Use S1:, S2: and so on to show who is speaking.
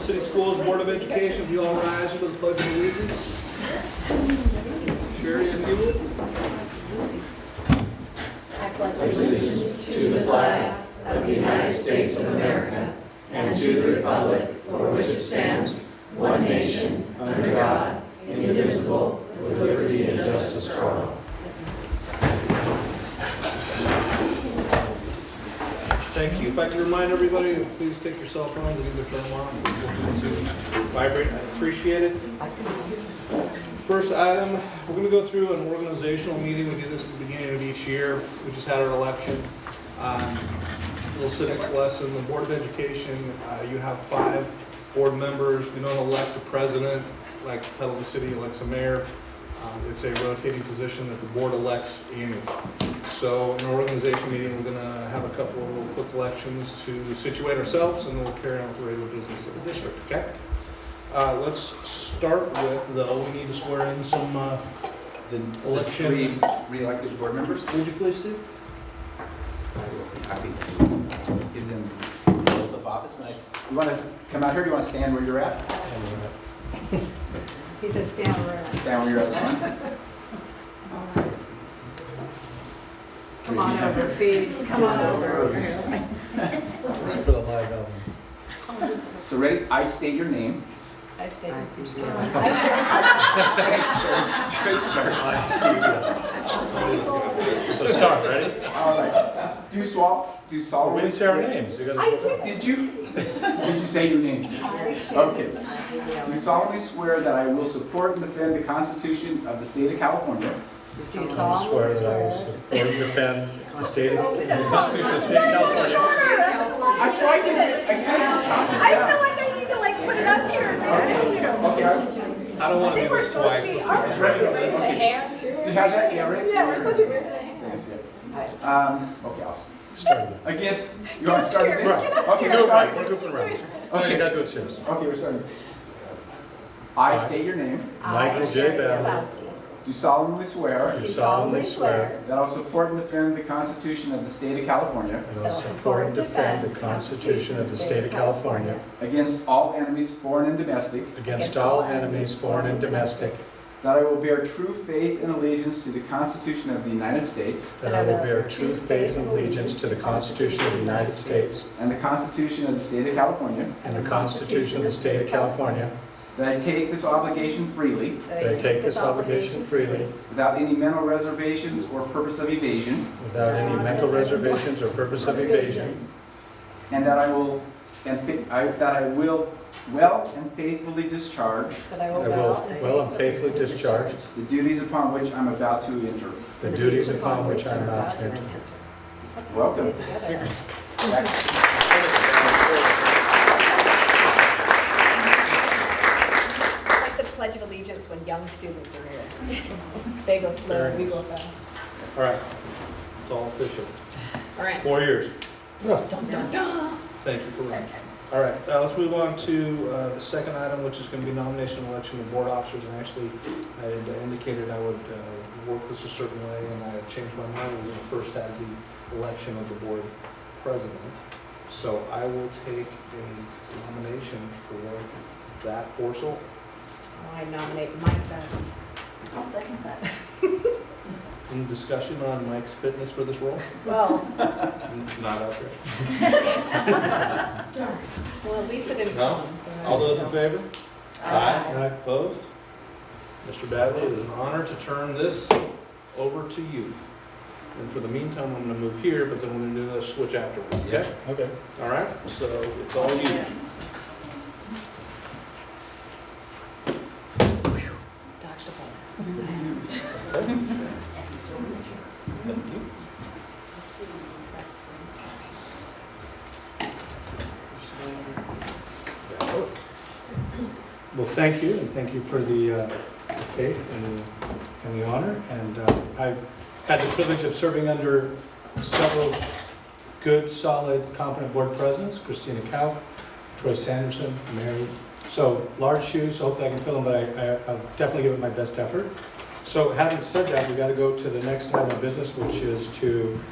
S1: Schools Board of Education, you all rise for the pledge of allegiance. Sherry, if you would. Thank you. If I can remind everybody, to please take your cell phones and either turn them off or to vibrate. I appreciate it. First item, we're going to go through an organizational meeting. We do this at the beginning of each year. We just had our election. Um, Little civics lesson, the Board of Education, uh, you have five board members. We don't elect a president, like Petaluma City elects a mayor. Um, It's a rotating position that the board elects annually. So in our organization meeting, we're gonna have a couple of little quick elections to situate ourselves, and then we'll carry on with the regular business of the district, okay? Uh, let's start with, though, we need to swear in some, uh,
S2: The the
S1: Election.
S2: three re-elected board members.
S1: would you please do?
S2: I will be happy to give them the oath of office. And I- You want to come out here, you want to stand where you're at?
S3: He said stand around.
S2: Stand where you're at, son.
S3: Come on over, Phoebes, come on over, over here.
S2: So ready, I state your name.
S3: I stay.
S2: Good start.
S4: So start, ready?
S2: All right. Do swap, do
S4: We
S2: solemnly.
S4: didn't say our names. You gotta-
S3: I did.
S2: Did you, did you say your names? Okay. Do solemnly swear that I will support and defend the Constitution of the state of California
S3: Do
S4: I swear
S3: solemnly
S4: that I will
S3: swear.
S4: support and defend the state of, the Constitution of the state of California.
S2: I tried to, I kind
S5: I need to like put it up here, man. You know.
S2: of chopped it down. Okay.
S1: I don't wanna do this twice. Let's go.
S2: It's right there. Okay. Do you have that? Yeah, right?
S5: Yeah, we're supposed to be raising our hand.
S2: Yes, yeah. Um, okay, awesome.
S4: Start it.
S2: Against, you want to start again?
S4: Right.
S2: Okay,
S4: Do
S2: we're
S4: it right,
S2: starting.
S4: we're goofing around. No,
S2: Okay.
S4: you gotta do it serious.
S2: Okay, we're starting. I state your name,
S4: Michael J. Babbitt,
S2: do solemnly swear
S4: do solemnly swear
S2: that I'll support and defend the Constitution of the State of California
S4: that I will support and defend the Constitution of the state of California
S2: against all enemies, foreign and domestic,
S4: against all enemies, foreign and domestic,
S2: that I will bear true faith and allegiance to the Constitution of the United States
S4: that I will bear true faith and allegiance to the Constitution of the United States
S2: and the Constitution of the State of California,
S4: and the Constitution of the state of California,
S2: that I take this obligation freely
S4: that I take this obligation freely
S2: without any mental reservations or purpose of evasion,
S4: Without any mental reservations or purpose of evasion.
S2: and that I will, and fa- I- that I will well and faithfully discharge
S3: That I
S4: I will well and faithfully discharge
S2: the duties upon which I'm about to enter.
S4: the duties upon which I am about to enter.
S2: Welcome.
S5: Like the Pledge of Allegiance when young students are here. They go slow, we go fast.
S1: All right, it's all official.
S5: All right.
S1: Four years.
S5: Dun, dun, dun.
S1: Thank you for running. All right, uh, let's move on to uh, the second item, which is going to be nomination, election of board officers. And actually, I had indicated I would uh, work this a certain way, and I changed my mind. We're going to first have the election of the board president. So I will take a nomination for that parcel.
S3: I nominate Mike Babbitt.
S5: I'll second that.
S1: Any discussion on Mike's fitness for this role?
S3: Well,
S1: Not out there.
S3: well, at least it didn't
S1: No?
S3: come. so-
S1: All those in favor?
S3: Aye.
S1: Opposed? Mr. Bagley, it is an honor to turn this over to you. And for the meantime, I'm gonna move here, but then we're gonna do the switch afterwards, okay?
S4: Okay.
S1: All right, so it's all you.
S3: Dodged a bullet.
S1: Thank you.
S6: Well, thank you, and thank you for the uh, the faith and the- and the honor. And uh, I've had the privilege of serving under several good, solid, competent board presidents, Christina Cow, Troy Sanderson, Mary. So large shoes, hopefully I can fill them, but I- I- I'll definitely give it my best effort. So having said that, we got to go to the next item of business, which is to